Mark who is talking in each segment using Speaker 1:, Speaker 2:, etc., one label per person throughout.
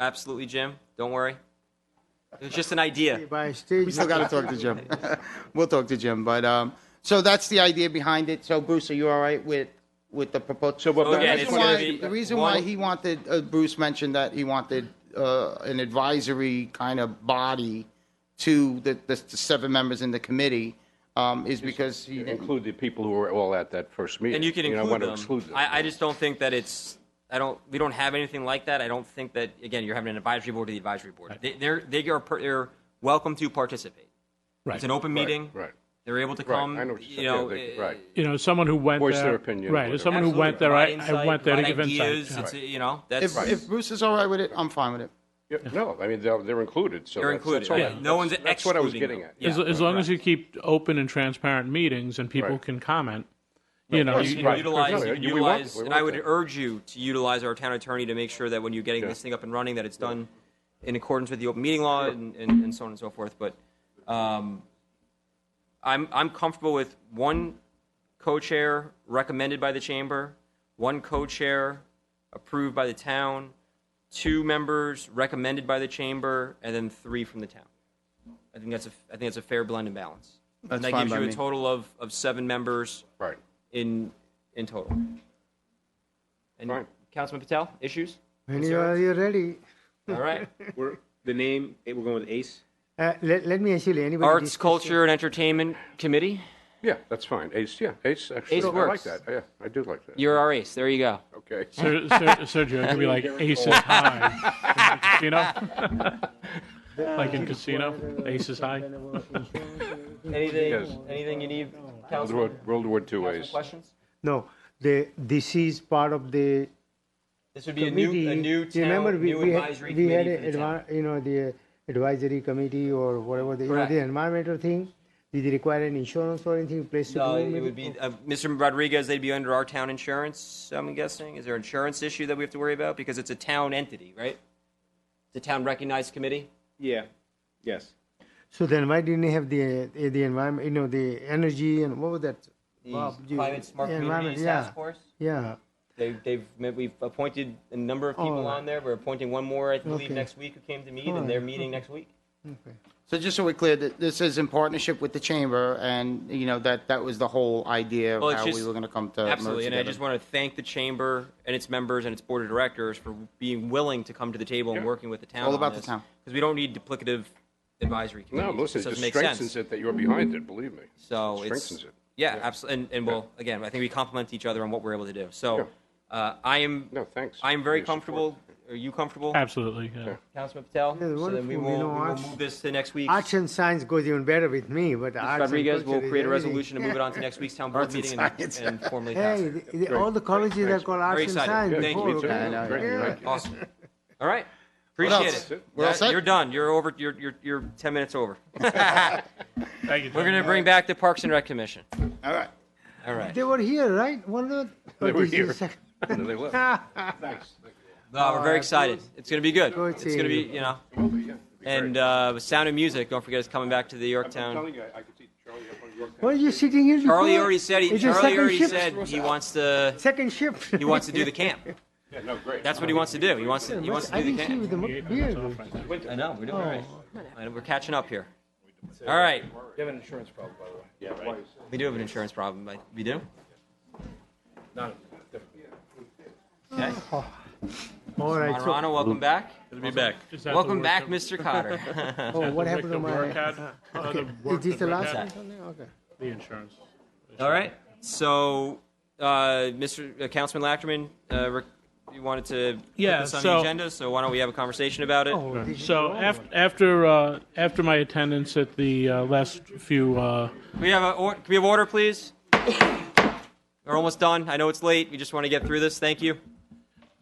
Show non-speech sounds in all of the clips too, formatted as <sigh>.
Speaker 1: absolutely, Jim. Don't worry. It was just an idea.
Speaker 2: By stage.
Speaker 3: We still got to talk to Jim. <laughs> We'll talk to Jim, but, um, so that's the idea behind it. So Bruce, are you all right with, with the proposal? So
Speaker 1: So again, it's gonna be
Speaker 3: The reason why
Speaker 1: one-
Speaker 3: he wanted, uh, Bruce mentioned that he wanted, uh, an advisory kind of body to the, the seven members in the committee, um, is because he didn't.
Speaker 4: Include the people who were all at that first meeting.
Speaker 1: And you can
Speaker 4: don't
Speaker 1: include
Speaker 4: want to
Speaker 1: them.
Speaker 4: exclude them.
Speaker 1: I, I just don't think that it's. I don't. We don't have anything like that. I don't think that. Again, you're having an advisory board to the advisory board. They, they're they are per, they're welcome to participate.
Speaker 5: Right.
Speaker 1: It's an open
Speaker 4: Right,
Speaker 1: meeting.
Speaker 4: right.
Speaker 1: They're able to
Speaker 4: Right,
Speaker 1: come.
Speaker 4: I know what
Speaker 1: you
Speaker 4: you're
Speaker 1: know.
Speaker 4: saying. Yeah, they-
Speaker 1: uh,
Speaker 4: right.
Speaker 5: You know, someone who went there.
Speaker 4: Voice their opinion,
Speaker 5: Right,
Speaker 4: whatever.
Speaker 5: there's someone who
Speaker 1: absolutely.
Speaker 5: went there, I,
Speaker 1: Provide
Speaker 5: I went there to
Speaker 1: insight,
Speaker 5: give
Speaker 1: provide ideas.
Speaker 5: insight. yeah.
Speaker 1: It's, uh, you know, that's
Speaker 3: If, if Bruce is all right with it, I'm fine with it.
Speaker 4: Yeah, No, I mean, they're, they're included, so.
Speaker 1: They're
Speaker 4: that's- that's
Speaker 1: included.
Speaker 4: all
Speaker 1: Yeah.
Speaker 4: right.
Speaker 1: No one's
Speaker 4: That's- That's what I was
Speaker 1: excluding
Speaker 4: getting
Speaker 1: them.
Speaker 4: at.
Speaker 1: Yeah.
Speaker 5: As, as long as you keep open and transparent meetings and people
Speaker 4: Right.
Speaker 5: can comment, you know.
Speaker 4: course,
Speaker 1: you
Speaker 5: you-
Speaker 1: can
Speaker 4: right.
Speaker 1: utilize, you
Speaker 4: Right.
Speaker 1: can
Speaker 4: You- we want-
Speaker 1: utilize,
Speaker 4: we
Speaker 1: and
Speaker 4: want
Speaker 1: I would
Speaker 4: that.
Speaker 1: urge you to utilize our town attorney to make sure that when you're getting
Speaker 4: Yeah.
Speaker 1: this thing up and running, that it's done in accordance with the open meeting law and, and, and so on and so forth. But um, I'm I'm comfortable with one co-chair recommended by the chamber, one co-chair approved by the town, two members recommended by the chamber, and then three from the town. I think that's a I think that's a fair blend and balance.
Speaker 3: That's
Speaker 1: and that
Speaker 3: fine
Speaker 1: gives
Speaker 3: by
Speaker 1: you a
Speaker 3: me.
Speaker 1: total of, of seven members
Speaker 4: Right.
Speaker 1: in in total. And
Speaker 4: Fine.
Speaker 1: Councilman Patel, <laughs> issues?
Speaker 2: When you are you're ready,
Speaker 1: All right.
Speaker 6: We're, the name, eh, we're going with Ace.
Speaker 2: uh, let, let me actually, anybody.
Speaker 1: Arts,
Speaker 2: discuss-
Speaker 1: Culture, and Entertainment Committee.
Speaker 4: Yeah, that's fine. Ace, yeah, Ace, actually,
Speaker 1: Ace
Speaker 4: I
Speaker 1: works.
Speaker 4: like that. Yeah, I do like that.
Speaker 1: You're our ace. There you go.
Speaker 4: Okay.
Speaker 5: Ser- Ser- Sergio, it could be like aces high. You
Speaker 4: <laughs>
Speaker 5: know? Like in casino, aces high.
Speaker 1: Anything?
Speaker 4: Yes.
Speaker 1: Anything you need,
Speaker 4: World War, World War II Ace.
Speaker 1: Questions?
Speaker 2: No, the, this is part of the
Speaker 1: This would be a
Speaker 2: committee.
Speaker 1: new a new town
Speaker 2: Remember, we,
Speaker 1: new
Speaker 2: we had,
Speaker 1: advisory
Speaker 2: we had,
Speaker 1: committee. for
Speaker 2: a
Speaker 1: the town.
Speaker 2: advi- you know, the advisory committee or whatever, the, you know,
Speaker 1: Correct.
Speaker 2: the environmental thing. Did it require an insurance or anything, place to
Speaker 1: No,
Speaker 2: go?
Speaker 1: it
Speaker 2: maybe?
Speaker 1: would be uh, Mr. Rodriguez. They'd be under our town insurance. I'm guessing. Is there an insurance issue that we have to worry about because it's a town entity, right? It's a town recognized committee.
Speaker 6: Yeah, yes.
Speaker 2: So then why didn't you have the, uh, the environment, you know, the energy and what was that?
Speaker 1: The
Speaker 2: Bob, you-
Speaker 1: Climate Smart
Speaker 2: the environment,
Speaker 1: Communities
Speaker 2: yeah.
Speaker 1: Task Force.
Speaker 2: Yeah,
Speaker 1: They've, they've, met- we've appointed a number of people
Speaker 2: Oh.
Speaker 1: on there. We're appointing one more, I believe,
Speaker 2: Okay.
Speaker 1: next week who came to meet,
Speaker 2: Alright,
Speaker 1: and they're meeting next week.
Speaker 2: okay.
Speaker 3: So just so we're clear, that this is in partnership with the chamber, and, you know, that, that was the whole idea
Speaker 1: Well,
Speaker 3: of
Speaker 1: it's
Speaker 3: how we
Speaker 1: just-
Speaker 3: were gonna come to merge
Speaker 1: Absolutely, and I
Speaker 3: together.
Speaker 1: just want to thank the chamber and its members and its board of directors for being willing to come to the table and working with the town.
Speaker 3: All about the town.
Speaker 1: Because we don't need duplicative advisory
Speaker 4: No,
Speaker 1: committees.
Speaker 4: listen,
Speaker 1: This
Speaker 4: it
Speaker 1: doesn't
Speaker 4: just
Speaker 1: make
Speaker 4: strengthens
Speaker 1: sense.
Speaker 4: it that you're behind it, believe me.
Speaker 1: So it's,
Speaker 4: Strengthens it.
Speaker 1: yeah, absolutely, and, and well, again, I think we complement each other on what we're able to do. So uh, I am,
Speaker 4: No, thanks
Speaker 1: I am
Speaker 4: for
Speaker 1: very
Speaker 4: your support.
Speaker 1: comfortable. Are you comfortable,
Speaker 5: Absolutely, yeah.
Speaker 1: Councilman Patel?
Speaker 2: Yeah,
Speaker 1: So then
Speaker 2: wonderful,
Speaker 1: we
Speaker 2: you
Speaker 1: will, we
Speaker 2: know,
Speaker 1: will
Speaker 2: arts-
Speaker 1: move this to next week.
Speaker 2: Arts and science goes even better with me, but arts and
Speaker 1: Rodriguez will
Speaker 2: culture is
Speaker 1: create a
Speaker 2: everything.
Speaker 1: resolution to move it on to next week's town board
Speaker 3: Arts and
Speaker 1: meeting and
Speaker 3: science.
Speaker 1: and formally pass
Speaker 2: Hey,
Speaker 1: it.
Speaker 2: the- the- all the colleges are called arts
Speaker 1: Very
Speaker 2: and
Speaker 1: excited.
Speaker 2: science.
Speaker 1: Good.
Speaker 4: Thank
Speaker 2: before,
Speaker 4: you, me too.
Speaker 2: okay?
Speaker 3: know,
Speaker 4: Great, you
Speaker 2: yeah.
Speaker 4: like it.
Speaker 1: Awesome. All right.
Speaker 3: else?
Speaker 1: Appreciate
Speaker 3: That's
Speaker 1: it.
Speaker 3: it. We're all
Speaker 1: That-
Speaker 3: set?
Speaker 1: You're done. You're over. You're, you're, you're 10 minutes
Speaker 2: <laughs>
Speaker 1: over.
Speaker 5: Thank you, Jim.
Speaker 1: We're going to bring back the Parks and Rec Commission.
Speaker 3: All right.
Speaker 1: All right.
Speaker 2: They were here, right? One of
Speaker 4: They were here. <laughs>
Speaker 2: Thank
Speaker 4: And then they left.
Speaker 1: <laughs>
Speaker 4: Thanks.
Speaker 1: No, we're very excited. It's going to be good.
Speaker 2: Good
Speaker 1: It's going to be,
Speaker 2: seeing
Speaker 1: you know.
Speaker 4: Probably, yeah. It'd be great.
Speaker 1: And uh, Sound of Music, don't forget, is coming back to the
Speaker 4: I'm
Speaker 1: Yorktown.
Speaker 4: telling you, I I could see Charlie up on Yorktown.
Speaker 2: Why are you sitting here?
Speaker 1: Charlie
Speaker 2: before?
Speaker 1: already said he,
Speaker 2: It's your
Speaker 1: Charlie
Speaker 2: second
Speaker 1: already
Speaker 2: shift.
Speaker 1: said he wants to
Speaker 2: Second shift.
Speaker 1: he wants to do the
Speaker 2: <laughs>
Speaker 1: camp.
Speaker 4: Yeah, no, great.
Speaker 1: That's what he wants to do. He wants to he wants
Speaker 2: I
Speaker 1: to do
Speaker 2: didn't
Speaker 1: the
Speaker 2: see you
Speaker 1: camp.
Speaker 2: with the mo- beard.
Speaker 1: I know. We're doing all right. And we're catching up here. All right.
Speaker 6: You have an insurance problem, by the way.
Speaker 4: Yeah, right.
Speaker 1: We do have an insurance problem. I- We do?
Speaker 6: Not,
Speaker 1: Okay.
Speaker 2: All right. So,
Speaker 1: Monterano, welcome back.
Speaker 7: Good to be back.
Speaker 5: Is that the
Speaker 1: Welcome
Speaker 5: work
Speaker 1: back,
Speaker 5: of- <laughs>
Speaker 1: Mr. Cotter. <laughs>
Speaker 2: oh, what
Speaker 5: the
Speaker 2: happened to
Speaker 5: victim work
Speaker 2: my?
Speaker 5: had- uh, the
Speaker 2: Is
Speaker 5: work
Speaker 2: this
Speaker 5: that
Speaker 2: the
Speaker 5: we
Speaker 2: last
Speaker 5: had,
Speaker 2: one? something? Okay.
Speaker 5: The insurance.
Speaker 1: All right. So, uh, Mr. uh, Councilman Lachman, uh, rec- you wanted to
Speaker 5: Yeah,
Speaker 1: put this on the
Speaker 5: so-
Speaker 1: agenda, so why don't we have a conversation about it?
Speaker 2: Oh, did you
Speaker 5: So
Speaker 2: go?
Speaker 5: after after uh, after my attendance at the uh, last few uh,
Speaker 1: Can we have a or- can we have order, please? We're almost done. I know it's late. We just want to get through this. Thank you.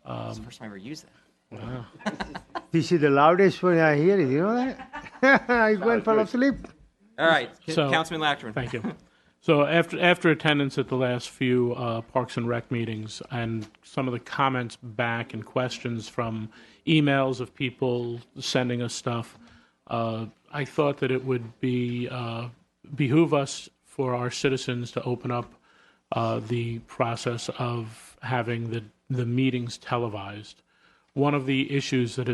Speaker 5: Um,
Speaker 1: it's the first time I ever used that.
Speaker 2: this is the loudest one I hear. It, you know that? <laughs> I went fell asleep.
Speaker 1: All right,
Speaker 5: So-
Speaker 1: Councilman Lachman.
Speaker 5: Thank you. So after after attendance at the last few uh, Parks and Rec meetings and some of the comments back and questions from emails of people sending us stuff, uh, I thought that it would be uh, behoove us for our citizens to open up uh, the process of having the the meetings televised. One of the issues that has